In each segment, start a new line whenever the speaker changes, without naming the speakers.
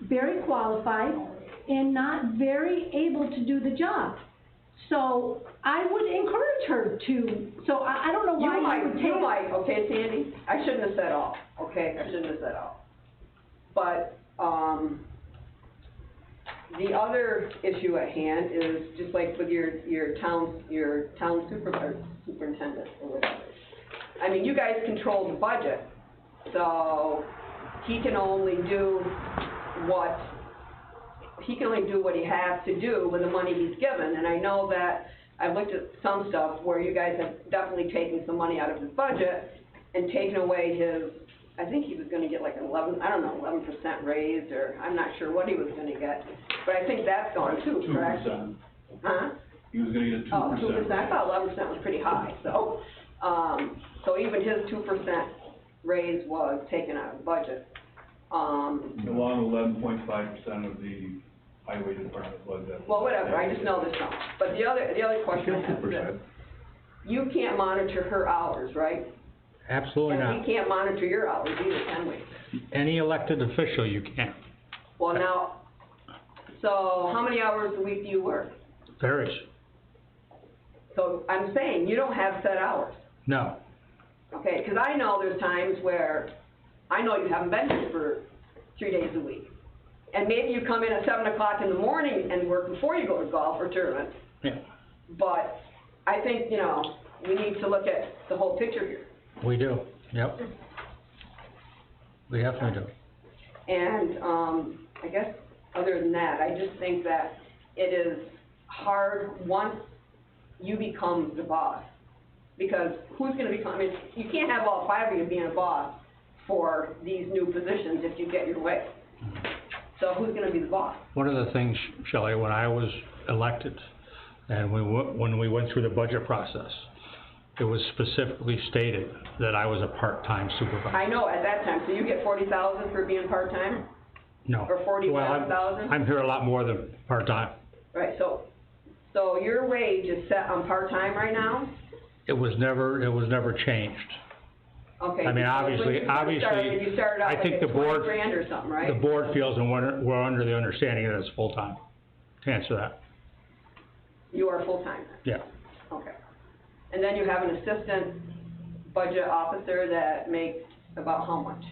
very qualified and not very able to do the job. So I would encourage her to, so I, I don't know why
You
you would
might,
take.
you might, okay, Sandy, I shouldn't have said all, okay, I shouldn't have said all. But, um, the other issue at hand is just like with your, your town, your town super, superintendent or whatever. I mean, you guys control the budget, so he can only do what, he can only do what he has to do with the money he's given, and I know that, I've looked at some stuff where you guys have definitely taken some money out of his budget and taken away his, I think he was gonna get like an eleven, I don't know, eleven percent raise, or I'm not sure what he was gonna get, but I think that's gone too,
Two
correct?
percent.
Huh?
He was gonna get a two
Oh,
percent.
two percent, I thought eleven percent was pretty high, so, um, so even his two percent raise was taken out of the budget. Um,
Along eleven point five percent of the highway department budget.
well, whatever, I just know this now, but the other, the other question I have is this. You can't monitor her hours, right?
Absolutely
And we
not.
can't monitor your hours either, can we?
Any elected official, you can't.
Well, now, so how many hours a week do you work?
Varies.
So I'm saying, you don't have set hours,
No.
okay? Because I know there's times where, I know you haven't been here for three days a week. And maybe you come in at seven o'clock in the morning and work before you go to golf or tournament.
Yeah.
But I think, you know, we need to look at the whole picture here.
We do. Yep. We definitely do.
And, um, I guess, other than that, I just think that it is hard once you become the boss. Because who's gonna become, I mean, you can't have all five of you being a boss for these new positions if you get your way. So who's gonna be the boss?
One of the things, Shelley, when I was elected, and we, wa- when we went through the budget process, it was specifically stated that I was a part-time supervisor.
I know at that time, so you get forty thousand for being part-time,
No.
or
Well, I'm-
45,000?
I'm here a lot more than part-time.
right, so, so your wage is set on part-time right now?
It was never, it was never changed.
Okay.
I
because
mean,
when
obviously-
you first
obviously,
started, You started
I
out like
think
at
the board-
twenty grand or something, right?
The board feels and we're, we're under the understanding that it's full-time, to answer that,
You are full-time then?
yeah.
Okay. And then you have an assistant budget officer that makes about how much?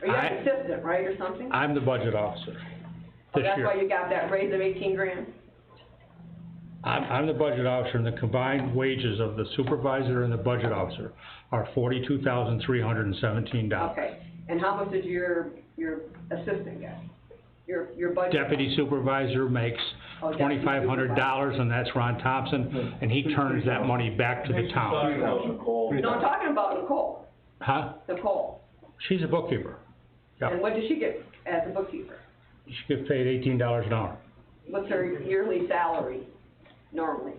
Or you have
I-
an assistant, right, or something?
I'm the budget officer
Oh,
this
that's why
year.
you got that raise of eighteen grand?
I'm, I'm the budget officer and the combined wages of the supervisor and the budget officer are forty-two thousand three hundred and seventeen dollars.
Okay. And how much did your, your assistant get? Your, your budget?
Deputy supervisor makes
Oh, deputy
twenty-five hundred dollars and that's Ron Thompson, and he turns that money back to the town.
No, I'm talking about Nicole,
Huh?
Nicole.
She's a bookkeeper. Yeah.
And what did she get as a bookkeeper?
She gets paid eighteen dollars an hour.
What's her yearly salary normally?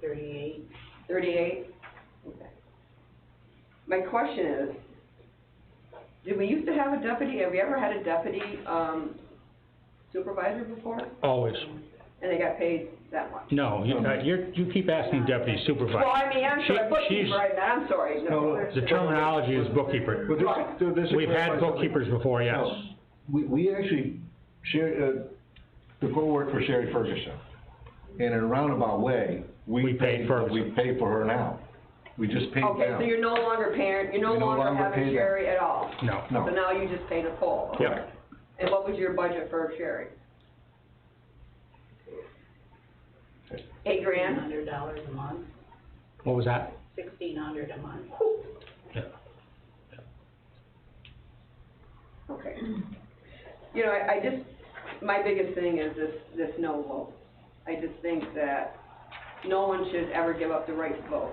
Thirty-eight.
Thirty-eight? Okay. My question is, did we used to have a deputy, have we ever had a deputy, um, supervisor before?
Always.
And they got paid that much?
No, you, uh, you're, you keep asking deputy supervisor.
Well, I mean, I'm
She-
sorry, bookkeeper,
she's-
I meant, I'm sorry, no.
No,
The terminology is bookkeeper.
Well,
Right.
just, so this is
We've had
clarify something.
bookkeepers before, yes.
No, We, we actually, Sherry, uh, Nicole worked for Sherry Ferguson. And in a roundabout way,
We
we
paid
paid,
Ferguson.
we pay for her now. We just paid
Okay, so
down.
you're no longer parent, you're no
We no
longer
longer pay
having
them.
Sherry at all?
No.
No.
So now you just pay Nicole?
Yep.
okay. And what was your budget for Sherry? Eight grand?
Hundred dollars a month,
What was that?
sixteen hundred a month.
Yeah.
Okay. You know, I, I just, my biggest thing is this, this no vote. I just think that no one should ever give up the right to vote,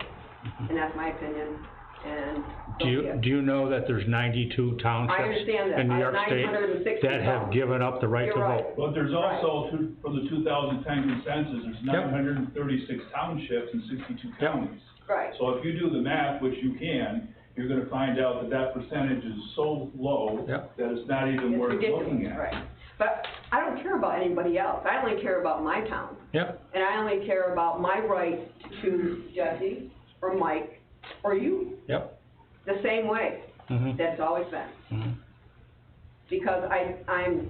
and that's my opinion, and. so
Do
be
you,
it.
do you know that there's ninety-two townships?
I understand that.
In New
I-
York State
960
that have given up the right to
You're right.
vote.
But there's also, two- from the two thousand ten consensus, there's nine hundred and thirty-six townships and sixty-two counties.
Right.
So if you do the math, which you can, you're gonna find out that that percentage is so low
Yep.
that it's not even
It's
worth looking
ridiculous,
at.
right. But I don't care about anybody else. I only care about my town.
Yep,
And I only care about my right to choose Jesse or Mike or you,
yep.
the same way
Mm-hmm.
that's always been. Because I, I'm